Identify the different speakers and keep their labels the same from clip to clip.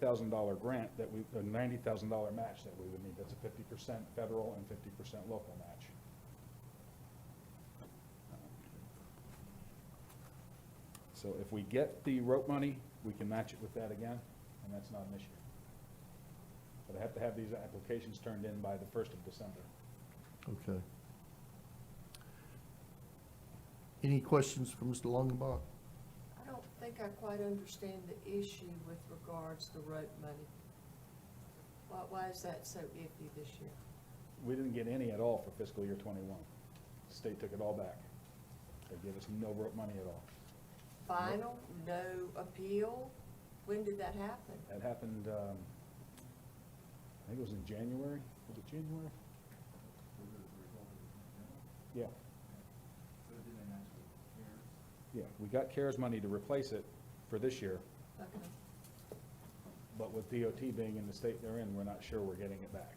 Speaker 1: thousand dollar grant that we, a ninety thousand dollar match that we would need. That's a fifty percent federal and fifty percent local match. So if we get the rope money, we can match it with that again, and that's not an issue. But I have to have these applications turned in by the first of December.
Speaker 2: Okay. Any questions for Mr. Longenbach?
Speaker 3: I don't think I quite understand the issue with regards to rope money. Why, why is that so iffy this year?
Speaker 1: We didn't get any at all for fiscal year twenty-one. State took it all back. They gave us no rope money at all.
Speaker 3: Final, no appeal? When did that happen?
Speaker 1: That happened, um, I think it was in January, was it January? Yeah, yeah, we got CARES money to replace it for this year,
Speaker 3: Okay.
Speaker 1: but with DOT being in the state they're in, we're not sure we're getting it back.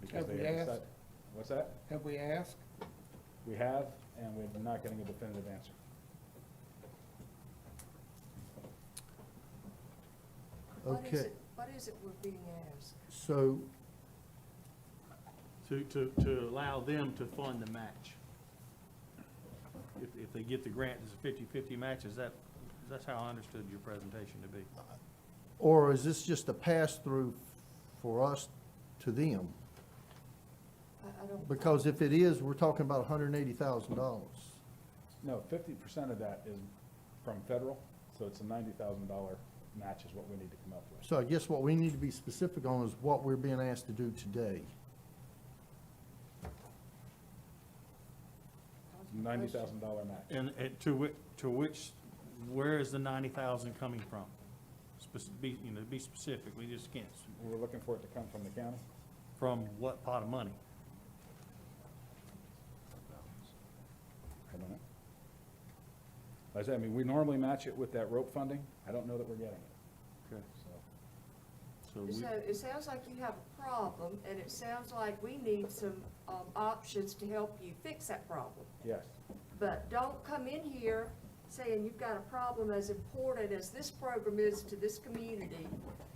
Speaker 1: Because
Speaker 4: Have
Speaker 1: they
Speaker 4: we
Speaker 1: haven't
Speaker 4: asked?
Speaker 1: said- What's that?
Speaker 4: Have we asked?
Speaker 1: We have, and we're not getting a definitive answer.
Speaker 3: What is
Speaker 2: Okay.
Speaker 3: it- What is it we're being asked?
Speaker 2: So,
Speaker 5: To, to, to allow them to fund the match. If, if they get the grant, it's a fifty-fifty match, is that, that's how I understood your presentation to be.
Speaker 2: or is this just a pass-through for us to them?
Speaker 3: I, I don't.
Speaker 2: Because if it is, we're talking about hundred and eighty thousand dollars.
Speaker 1: No, fifty percent of that is from federal, so it's a ninety thousand dollar match is what we need to come up with.
Speaker 2: So I guess what we need to be specific on is what we're being asked to do today.
Speaker 1: Ninety thousand dollar match.
Speaker 5: And, and to which, to which, where is the ninety thousand coming from? Spec- be, you know, be specific, we just can't, s-
Speaker 1: We were looking for it to come from the county.
Speaker 5: from what pot of money?
Speaker 1: I don't know. Like I said, I mean, we normally match it with that rope funding. I don't know that we're getting it,
Speaker 5: Okay.
Speaker 1: so.
Speaker 5: So we,
Speaker 3: So it sounds like you have a problem, and it sounds like we need some, um, options to help you fix that problem.
Speaker 1: Yes,
Speaker 3: But don't come in here saying you've got a problem as important as this program is to this community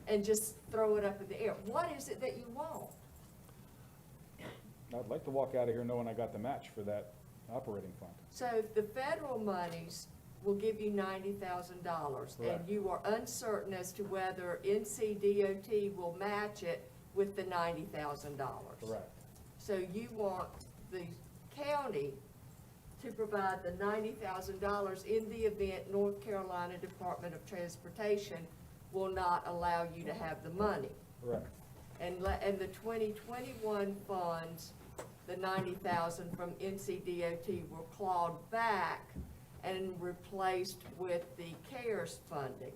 Speaker 3: and just throw it up in the air. What is it that you want?
Speaker 1: I'd like to walk out of here knowing I got the match for that operating fund.
Speaker 3: So the federal monies will give you ninety thousand dollars, and
Speaker 1: Correct.
Speaker 3: you are uncertain as to whether NCDOT will match it with the ninety thousand dollars.
Speaker 1: Correct.
Speaker 3: So you want the county to provide the ninety thousand dollars in the event North Carolina Department of Transportation will not allow you to have the money.
Speaker 1: Correct.
Speaker 3: And le, and the twenty twenty-one funds, the ninety thousand from NCDOT were clawed back and replaced with the CARES funding.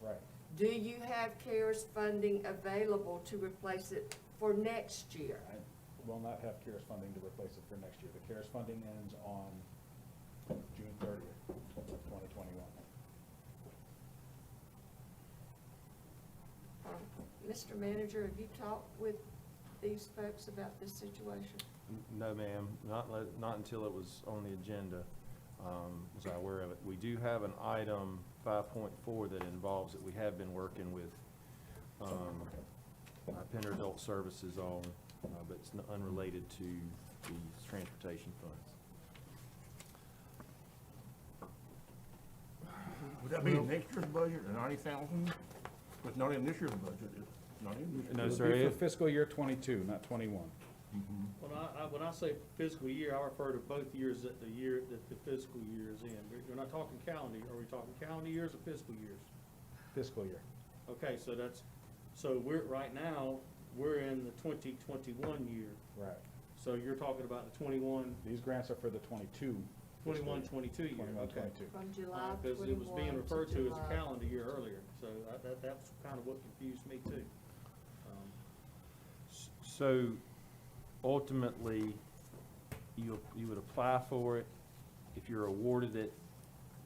Speaker 1: Right.
Speaker 3: Do you have CARES funding available to replace it for next year?
Speaker 1: I will not have CARES funding to replace it for next year. The CARES funding ends on June thirtieth, twenty twenty-one.
Speaker 3: Uh, Mr. Manager, have you talked with these folks about this situation?
Speaker 6: N- No, ma'am, not, le- not until it was on the agenda, um, was I aware of it. We do have an item five point four that involves, that we have been working with, um, uh, Pender Adult Services on, uh, but it's n- unrelated to these transportation funds.
Speaker 7: Would that be in next year's budget, the ninety thousand? It's not in this year's budget, it's not in this year's.
Speaker 6: No,
Speaker 1: It would
Speaker 6: sir,
Speaker 1: be for
Speaker 6: it-
Speaker 1: fiscal year twenty-two, not twenty-one.
Speaker 5: when I, I, when I say fiscal year, I refer to both years that the year, that the fiscal year is in. We're- We're not talking calendar, are we talking calendar years or fiscal years?
Speaker 1: fiscal year.
Speaker 5: Okay, so that's, so we're, right now, we're in the twenty twenty-one year,
Speaker 1: Right.
Speaker 5: so you're talking about the 21,
Speaker 1: These grants are for the twenty-two.
Speaker 5: 21, 22 year,
Speaker 1: Twenty-one,
Speaker 5: okay.
Speaker 1: twenty-two.
Speaker 3: From July
Speaker 5: Uh,
Speaker 3: twenty-one
Speaker 5: Because it was being referred to as a
Speaker 3: July-
Speaker 5: calendar year earlier, so I- that, that's kind of what confused me too. Um,
Speaker 6: S- So ultimately, you, you would apply for it. If you're awarded it,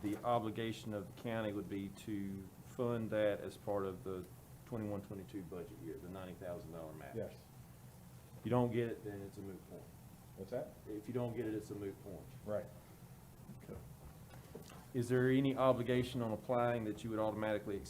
Speaker 6: the obligation of the county would be to fund that as part of the twenty-one, twenty-two budget year, the ninety thousand dollar match.
Speaker 1: Yes.
Speaker 6: If you don't get it, then it's a moot point.
Speaker 1: What's that?
Speaker 6: If you don't get it, it's a moot point.
Speaker 1: Right.
Speaker 6: Is there any obligation on applying that you would automatically accept